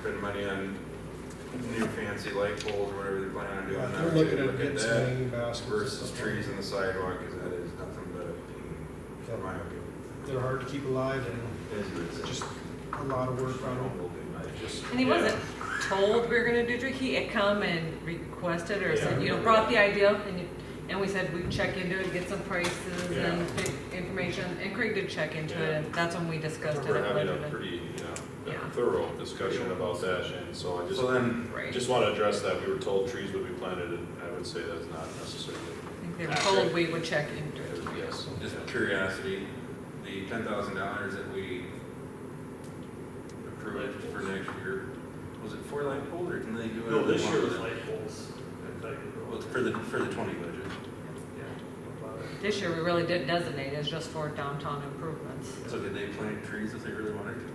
spend money on new fancy light poles or whatever they're planning on doing. I We're would looking at look at getting some that hanging baskets. Versus trees in the sidewalk, because that is nothing but a pain, in my opinion. They're hard to keep alive and It is what it is. just a lot of work on them. Humble, dude, I just- And he wasn't told we were gonna do Dookie, it come and requested or Yeah, I said, you know, remember brought that. the idea up and you, and we said we'd check into it, get some prices Yeah. and pick information, and Craig did check into Yeah. it, and that's when we I discussed it. remember at having a budget. pretty, you know, Yeah. thorough discussion about that, and so I So just, then, Right, just want to address that, we were told trees would be planted, and I would say that's not necessarily, I think they were accurate. told we would check into it. yes. just out of curiosity, the ten thousand dollars that we approved for next year, was it four light poles or can they do it? No, this year was light poles. I thought you Well, were- it's for the, for the twenty budget. Yeah. This year, we really didn't designate, it's just for downtown improvements. So did they plant trees if they really wanted to?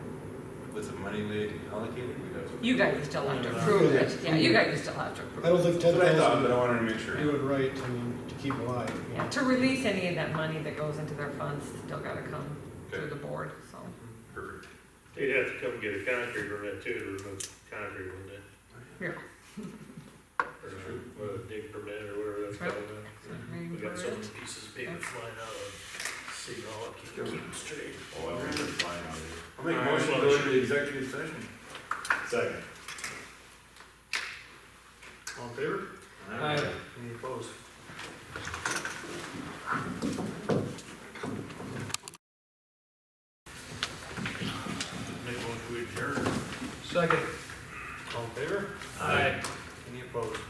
With the money they allocated? You guys still have to approve it, yeah, you guys still have to approve I don't think That's ten what I thought, but thousand I wanted to make sure. would do it right to, to keep alive. you know. Yeah, to release any of that money that goes into their funds, still gotta come through the board, so. Perfect. They'd have to come get a concrete permit too, to remove concrete, wouldn't it? Here. Or uh, dig permit or whatever that's Right. called. now. We got so many pieces of paper flying out of City Hall, I can't keep them straight. Oh, I remember flying out of I'll make a motion to go into the executive session. here. Second. All in favor? Aye. Any opposed? Make one to adjourn. Second. All in favor? Aye. Any opposed?